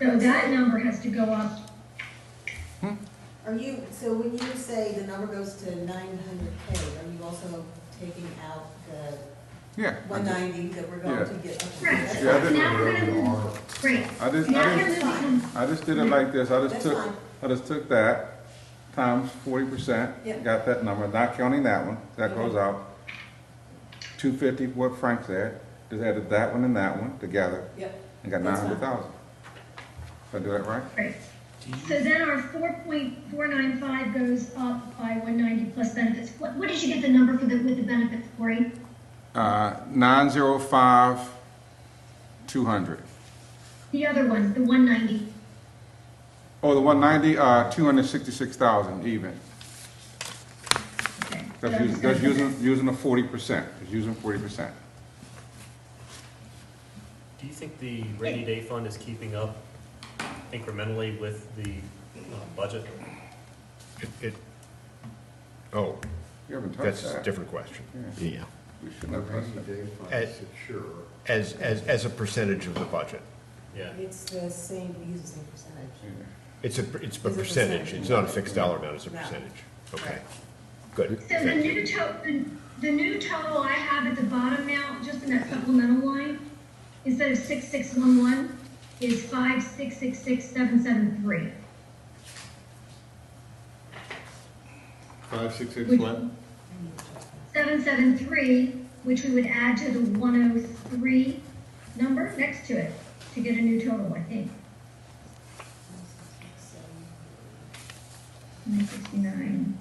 So that number has to go up, Are you, so when you say the number goes to nine hundred K, are you also taking out the Yeah. I one just- ninety that we're going to get? up to? Right. That's Yeah, I fine. didn't- now we're gonna, great, I just, now I we're gonna just, become, I just did it like this, I just That's took, fine. I just took that times forty percent, Yep. got that number, not counting that one, that Okay. goes out. Two fifty, what Frank said, just added that one and that one together, Yep, and got nine That's fine. hundred thousand. Did I do that right? great. So then our four point four nine five goes up by one ninety plus benefits. What, what did you get the number for the, with the benefits, Corey? Uh, nine zero five, two hundred. The other one, the one ninety, Oh, the one ninety, uh, two hundred sixty-six thousand even. okay. so That's I'm using, just gonna that's put that. using, using the forty percent, it's using forty percent. Do you think the rainy day fund is keeping up incrementally with the uh, budget? It, it, oh, You haven't touched that's a that. different question. Yeah. We shouldn't have touched that. As- As, as, as a percentage of the budget. Yeah, it's the same, we use the same percentage. It's a, it's a It's a percentage, it's not a fixed dollar amount, it's a No. percentage. Okay, good. So the Thank you. new total, the new total I have at the bottom now, just in that supplemental line, instead of six six one one, is five six six six seven seven three. Five, six, six, Which- one? Seven seven three, which we would add to the one oh three number next to it to get a new total, I think. Nine sixty-nine.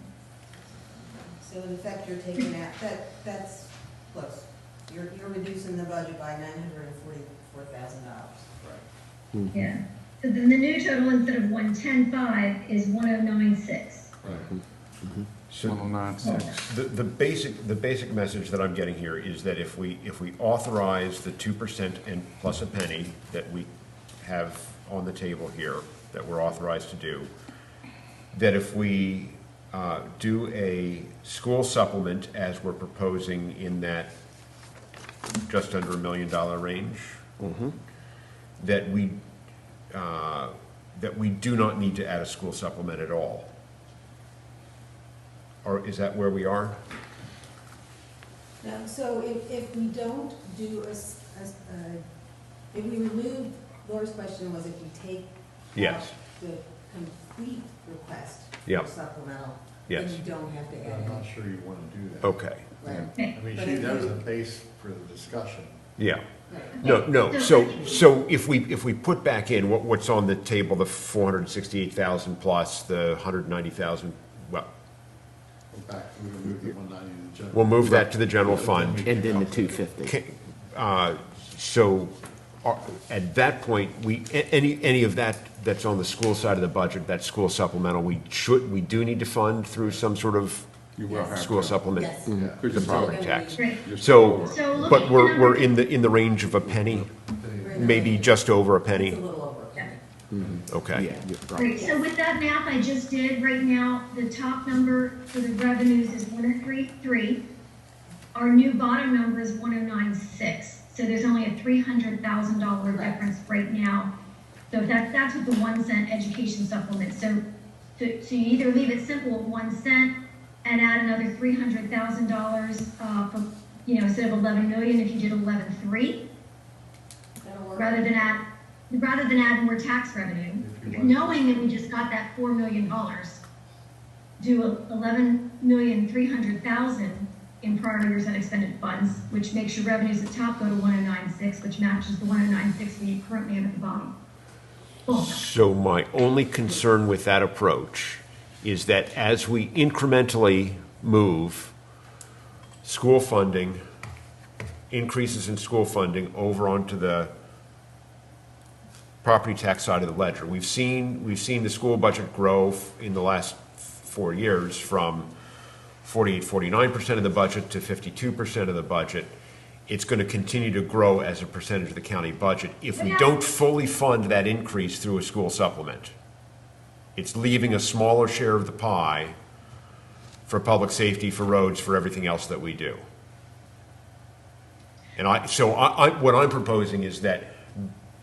So in effect, you're taking out, that, that's close. You're, you're reducing the budget by nine hundred and forty-four thousand dollars. Yeah. So then the new total instead of one ten five is one oh nine six. So 1096. the, the basic, the basic message that I'm getting here is that if we, if we authorize the two percent and plus a penny that we have on the table here, that we're authorized to do, that if we uh, do a school supplement as we're proposing in that just under a million dollar range, Mm-hmm. that we, uh, that we do not need to add a school supplement at all. Or is that where we are? No, so if, if we don't do a, s- a s- a- if we remove, Laura's question was if we take out Yes. the complete request Yeah. for supplemental, then Yes. you don't have to I'm add not it. sure you want to do Oh. that. Okay, Right, Okay. I mean, But she, if that was you- the base for the discussion. yeah. right. No, no, so, so if we, if we put back in what, what's on the table, the four hundred and sixty-eight thousand plus the hundred and ninety thousand, well, Go back, we removed the one ninety in the general. we'll move that to the general fund. And then the two fifty. Ca- uh, So, are- at that point, we, a- any, any of that that's on the school side of the budget, that school supplemental, we should, we do need to fund through some sort of You will have school to. supplement, Yes. Yeah. Could the you property Yes. tax. Great. So, So look at but the we're, number- we're in the, in the range of a penny, Right. maybe just over a It's a penny? little over. Mm-hmm. Yeah. Okay. Yeah, you're right. Great, so with that math I just did, right now, the top number for the revenues is one oh three three. Our new bottom number is one oh nine six, so there's only a three hundred thousand dollar Correct. difference right now. So that's, that's with the one cent education supplement, so, so so you either leave it simple at one cent and add another three hundred thousand dollars, uh, for, you know, instead of eleven million, if you did eleven three, That'll work. rather than add, rather than add more tax revenue, If you want- knowing that we just got that four million dollars, do eleven million three hundred thousand in prior year's unexpended funds, which makes your revenues at top go to one oh nine six, which matches the one oh nine six we currently have at the bottom. Boom. So my only concern with that approach is that as we incrementally move school funding, increases in school funding over onto the property tax side of the ledger. We've seen, we've seen the school budget grow f- in the last four years from 48, 49% of the budget to 52% of the budget. It's going to continue to grow as a percentage of the county budget if we don't fully fund that increase through a school supplement. It's leaving a smaller share of the pie for public safety, for roads, for everything else that we do. And I, so I, I, what I'm proposing is that